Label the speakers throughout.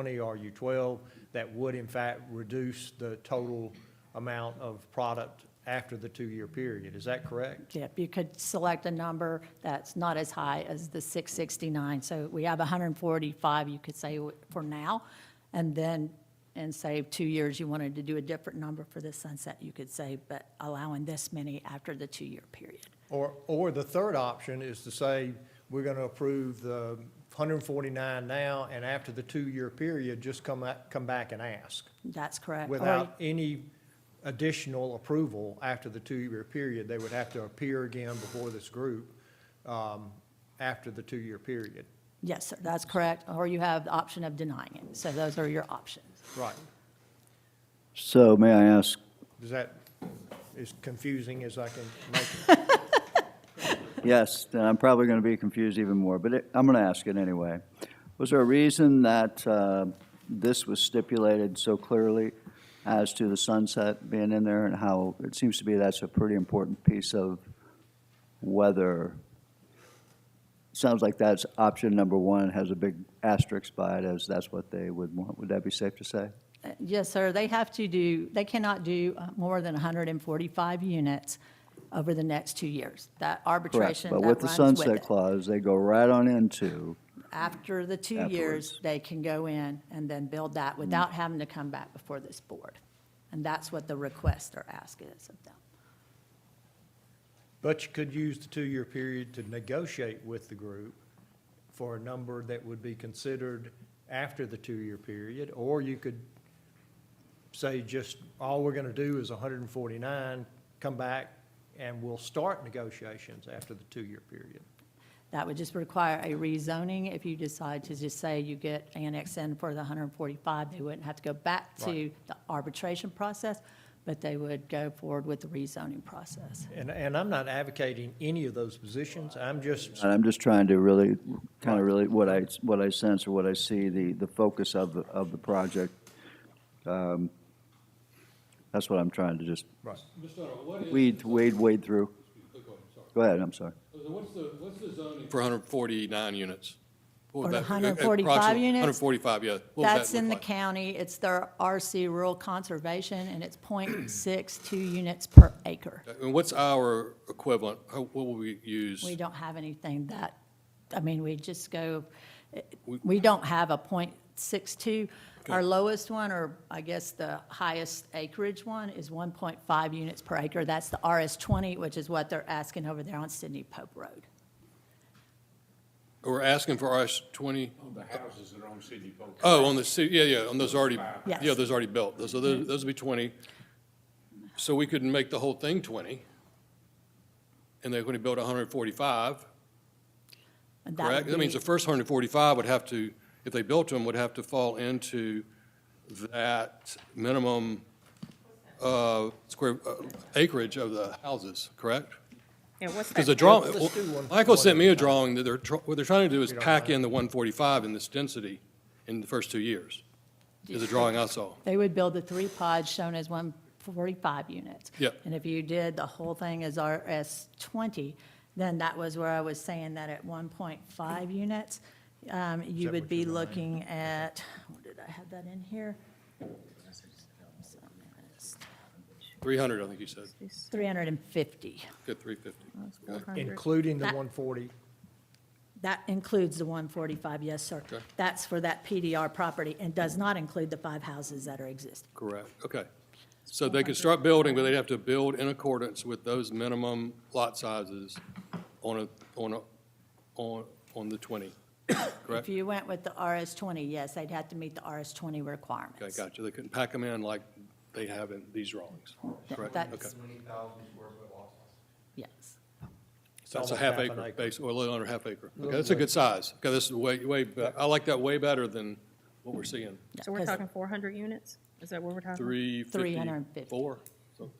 Speaker 1: 20, RU12, that would in fact reduce the total amount of product after the two-year period. Is that correct?
Speaker 2: Yep, you could select a number that's not as high as the 669. So we have 145, you could say, for now, and then, and say, two years, you wanted to do a different number for the sunset, you could say, but allowing this many after the two-year period.
Speaker 1: Or, or the third option is to say, we're gonna approve the hundred and forty-nine now, and after the two-year period, just come back, come back and ask,
Speaker 2: That's correct. Or-
Speaker 1: without any additional approval after the two-year period. They would have to appear again before this group, um, after the two-year period.
Speaker 2: Yes, sir, that's correct. Or you have the option of denying it. So those are your options.
Speaker 1: Right.
Speaker 3: So may I ask,
Speaker 1: Is that, as confusing as I can make it?
Speaker 3: yes, then I'm probably going to be confused even more, but it- I'm going to ask it anyway. Was there a reason that uh, this was stipulated so clearly as to the sunset being in there and how it seems to be that's a pretty important piece of whether, sounds like that's option number one, has a big asterisk by it as that's what they would want. Would that be safe to say?
Speaker 2: Uh, Yes, sir, they have to do, they cannot do uh, more than 145 units over the next two years. That
Speaker 3: Correct.
Speaker 2: arbitration, that
Speaker 3: But
Speaker 2: runs
Speaker 3: with
Speaker 2: with
Speaker 3: the
Speaker 2: it.
Speaker 3: sunset clause, they go right on into,
Speaker 2: After the two years,
Speaker 3: Afterwards.
Speaker 2: they can go in and then build that
Speaker 4: Mm-hmm.
Speaker 2: without having to come back before this board. And that's what the requests are asking us of them.
Speaker 1: But you could use the two-year period to negotiate with the group for a number that would be considered after the two-year period, or you could say just, all we're gonna do is hundred and forty-nine, come back, and we'll start negotiations after the two-year period.
Speaker 2: That would just require a rezoning. If you decide to just say you get annexed in for the 145, they wouldn't have to go back to
Speaker 1: Right.
Speaker 2: the arbitration process, but they would go forward with the rezoning process.
Speaker 1: And, and I'm not advocating any of those positions, I'm just,
Speaker 3: and I'm just trying to really, kind of really, what I, what I sense or what I see, the, the focus of, the of the project. Um, That's what I'm trying to just
Speaker 1: right,
Speaker 4: Mr. Arnold, what is?
Speaker 3: weed, wade, wade through.
Speaker 4: Quick one, sorry.
Speaker 3: Go ahead, I'm sorry.
Speaker 4: What's the, what's the zoning? For 149 units. What would
Speaker 2: For
Speaker 4: that-
Speaker 2: 145
Speaker 4: approximately-
Speaker 2: units?
Speaker 4: 145, yeah. What would that
Speaker 2: That's in the
Speaker 4: look like?
Speaker 2: county. It's their RC Rural Conservation, and it's .62 units per acre.
Speaker 4: And what's our equivalent? How- What will we use?
Speaker 2: We don't have anything that, I mean, we just go,
Speaker 4: We-
Speaker 2: we don't have a point six-two. Our
Speaker 4: Okay.
Speaker 2: lowest one, or I guess the highest acreage one, is one point five units per acre. That's the RS twenty, which is what they're asking over there on Sydney Pope Road.
Speaker 4: We're asking for RS-20?
Speaker 5: On the houses that are on Sydney Pope.
Speaker 4: Oh, on the, ci- yeah, yeah, on those already,
Speaker 2: Yes. Mm-hmm.
Speaker 4: yeah, those already built. Those, so those those would be 20. So we could make the whole thing 20. And they're going to build 145,
Speaker 2: And that
Speaker 4: correct?
Speaker 2: would
Speaker 4: That means
Speaker 2: be-
Speaker 4: the first 145 would have to, if they built them, would have to fall into that minimum uh, square uh, acreage of the houses, correct?
Speaker 6: And what's
Speaker 4: Because the
Speaker 6: that?
Speaker 4: draw,
Speaker 1: Let's do one-
Speaker 4: Michael sent me a drawing that they're, tr- what they're trying to do is pack in the 145 in this density in the first two years, is a drawing I saw.
Speaker 2: They would build the three pods shown as one forty-five units.
Speaker 4: Yeah.
Speaker 2: And if you did the whole thing as RS twenty, then that was where I was saying that at one point five units, um, you
Speaker 1: that
Speaker 2: would
Speaker 1: what
Speaker 2: be
Speaker 1: you're
Speaker 2: looking at, what did I have that in here?
Speaker 4: 300, I think he said,
Speaker 2: Three hundred and fifty.
Speaker 4: good, 350.
Speaker 1: including the
Speaker 2: That-
Speaker 1: one forty,
Speaker 2: That includes the one forty-five, yes, sir.
Speaker 4: Okay.
Speaker 2: That's for that PDR property and does not include the five houses that are existing.
Speaker 4: Correct, okay. So they could start building, but they'd have to build in accordance with those minimum lot sizes on a, on a, on, on the 20,
Speaker 2: If
Speaker 4: correct?
Speaker 2: you went with the RS twenty, yes, they'd have to meet the RS twenty requirements.
Speaker 4: Okay, gotcha. They couldn't pack them in like they have in these drawings, correct? Okay.
Speaker 2: That's, yes.
Speaker 4: So That's a half
Speaker 1: Almost
Speaker 4: acre, basically, or a little under half acre. Okay, that's a good size. Okay, this is way, way, be- I like that way better than what we're seeing.
Speaker 6: So we're talking four hundred units? Is that what we're talking?
Speaker 4: Three fifty
Speaker 2: 350.
Speaker 4: four.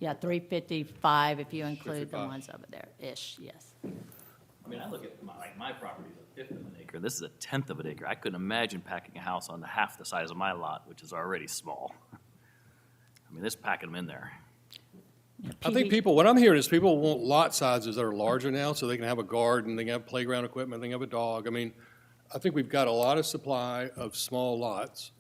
Speaker 2: Yeah, three fifty-five if you include the
Speaker 4: 355.
Speaker 2: ones over there, ish, yes.
Speaker 7: I mean, I look at my, like, my property is a fifth of an acre, this is a tenth of an acre. I couldn't imagine packing a house onto half the size of my lot, which is already small. I mean, this packing them in there.
Speaker 4: I think
Speaker 2: PD
Speaker 4: people, what I'm hearing is people want lot sizes that are larger now, so they can have a garden, they can have playground equipment, they can have a dog. I mean, I think we've got a lot of supply of small lots,